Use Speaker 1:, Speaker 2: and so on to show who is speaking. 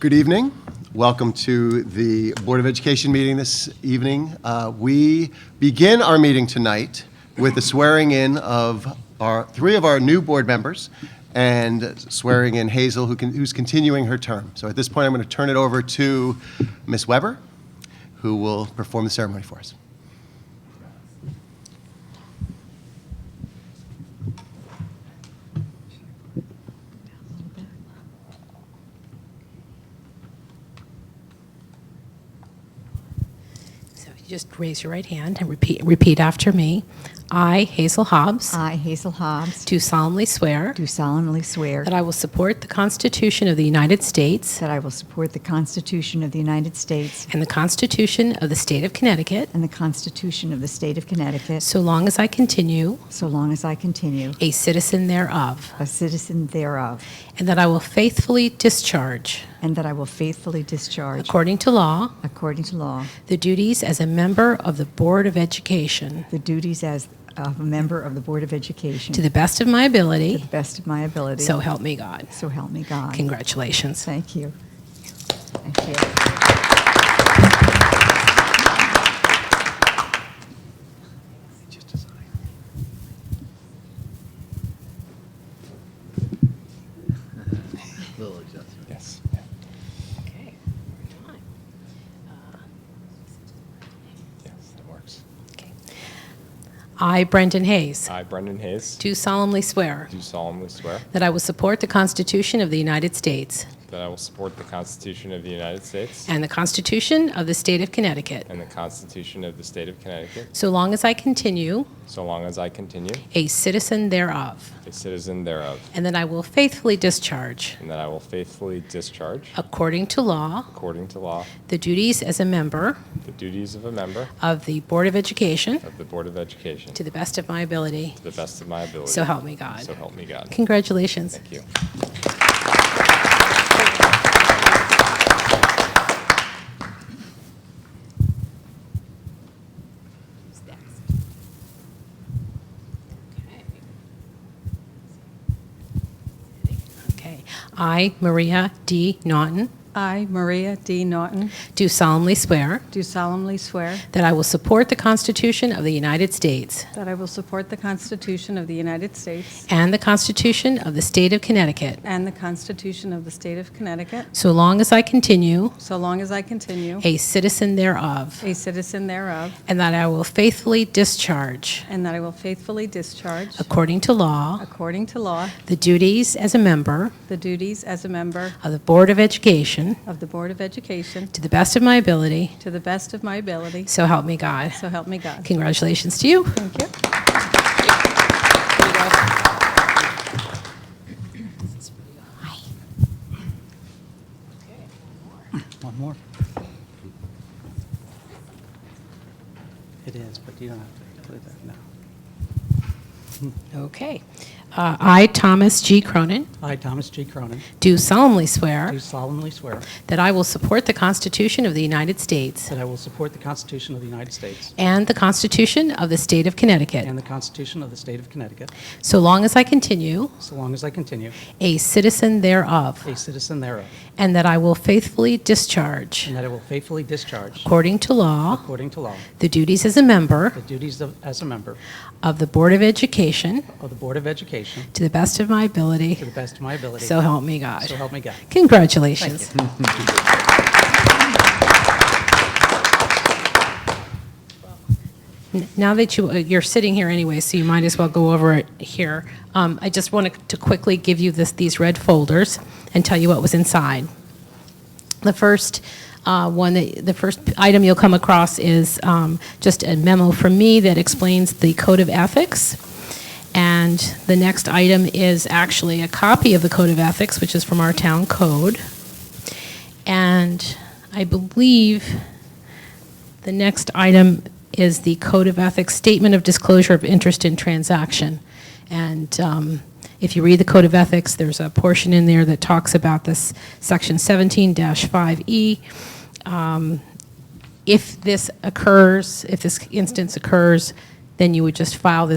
Speaker 1: Good evening. Welcome to the Board of Education meeting this evening. Uh, We begin our meeting tonight with the swearing-in of our, three of our new board members, and swearing in Hazel, who can- who's continuing her term. So at this point, I'm going to turn it over to Ms. Weber, who will perform the ceremony for us.
Speaker 2: So if you just raise your right hand and repeat, repeat after me. I, Hazel Hobbs,
Speaker 3: I, Hazel Hobbs,
Speaker 2: do solemnly swear
Speaker 3: do solemnly swear
Speaker 2: that I will support the Constitution of the United States
Speaker 3: that I will support the Constitution of the United States
Speaker 2: and the Constitution of the State of Connecticut
Speaker 3: and the Constitution of the State of Connecticut
Speaker 2: so long as I continue
Speaker 3: so long as I continue
Speaker 2: a citizen thereof,
Speaker 3: a citizen thereof,
Speaker 2: and that I will faithfully discharge,
Speaker 3: and that I will faithfully discharge,
Speaker 2: according to law,
Speaker 3: according to law,
Speaker 2: the duties as a member of the Board of Education
Speaker 3: the duties as of a member of the Board of
Speaker 2: to
Speaker 3: Education
Speaker 2: the best of my
Speaker 3: to the
Speaker 2: ability.
Speaker 3: best of my ability.
Speaker 2: So help me God.
Speaker 3: So help me God.
Speaker 2: Congratulations.
Speaker 3: Thank you. Thank you.
Speaker 1: Yes.
Speaker 2: Okay. Uh,
Speaker 4: Yes, that works.
Speaker 2: Okay. I, Brendan Hayes,
Speaker 4: I, Brendan Hayes,
Speaker 2: do solemnly swear
Speaker 4: do solemnly swear
Speaker 2: that I will support the Constitution of the United States
Speaker 4: that I will support the Constitution of the United States
Speaker 2: and the Constitution of the State of Connecticut,
Speaker 4: and the Constitution of the State of Connecticut,
Speaker 2: so long as I continue
Speaker 4: so long as I continue
Speaker 2: a citizen thereof,
Speaker 4: a citizen thereof,
Speaker 2: and that I will faithfully discharge,
Speaker 4: and that I will faithfully discharge,
Speaker 2: according to law,
Speaker 4: according to law,
Speaker 2: the duties as a member
Speaker 4: the duties of a member
Speaker 2: of the Board of Education
Speaker 4: of the Board of Education
Speaker 2: to
Speaker 4: to
Speaker 2: the best of my ability.
Speaker 4: the best of my ability.
Speaker 2: So help me God.
Speaker 4: So help me God.
Speaker 2: Congratulations.
Speaker 4: Thank you.
Speaker 2: Who's next? Okay. I, Maria D. Naughton,
Speaker 5: I, Maria D. Norton,
Speaker 2: do solemnly swear
Speaker 5: do solemnly swear
Speaker 2: that I will support the Constitution of the United States
Speaker 5: that I will support the Constitution of the United States
Speaker 2: and the Constitution of the State of Connecticut,
Speaker 5: and the Constitution of the State of Connecticut,
Speaker 2: so long as I continue
Speaker 5: so long as I continue
Speaker 2: a citizen thereof,
Speaker 5: a citizen thereof,
Speaker 2: and that I will faithfully discharge,
Speaker 5: and that I will faithfully discharge,
Speaker 2: according to law,
Speaker 5: according to law,
Speaker 2: the duties as a member
Speaker 5: the duties as a member
Speaker 2: of the Board of Education
Speaker 5: of the Board of Education
Speaker 2: to the best of my ability,
Speaker 5: to the best of my ability.
Speaker 2: so help me God.
Speaker 5: So help me God.
Speaker 2: Congratulations to you.
Speaker 5: Thank you.
Speaker 6: One more. It is, but you don't have to do that now.
Speaker 2: Okay. Uh, I, Thomas G. Cronin,
Speaker 6: I, Thomas G. Cronin,
Speaker 2: do solemnly swear
Speaker 6: do solemnly swear
Speaker 2: that I will support the Constitution of the United States
Speaker 6: that I will support the Constitution of the United States
Speaker 2: and the Constitution of the State of Connecticut,
Speaker 6: and the Constitution of the State of Connecticut,
Speaker 2: so long as I continue
Speaker 6: so long as I continue
Speaker 2: a citizen thereof,
Speaker 6: a citizen thereof,
Speaker 2: and that I will faithfully discharge,
Speaker 6: and that I will faithfully discharge,
Speaker 2: according to law,
Speaker 6: according to law,
Speaker 2: the duties as a member
Speaker 6: the duties of, as a member
Speaker 2: of the Board of Education
Speaker 6: of the Board of Education
Speaker 2: to the best of my
Speaker 6: to
Speaker 2: ability,
Speaker 6: the best of my ability.
Speaker 2: so help me God.
Speaker 6: So help me God.
Speaker 2: Congratulations. N- Now that you, uh, you're sitting here anyway, so you might as well go over it here. Um, I just wanted to quickly give you this, these red folders and tell you what was inside. The first uh, one, that- the first item you'll come across is um, just a memo from me that explains the Code of Ethics. And the next item is actually a copy of the Code of Ethics, which is from our town code. And I believe the next item is the Code of Ethics Statement of Disclosure of Interest in Transaction. And um, if you read the Code of Ethics, there's a portion in there that talks about this Section 17-5E. E. Um, If this occurs, if this instance occurs, then you would just file this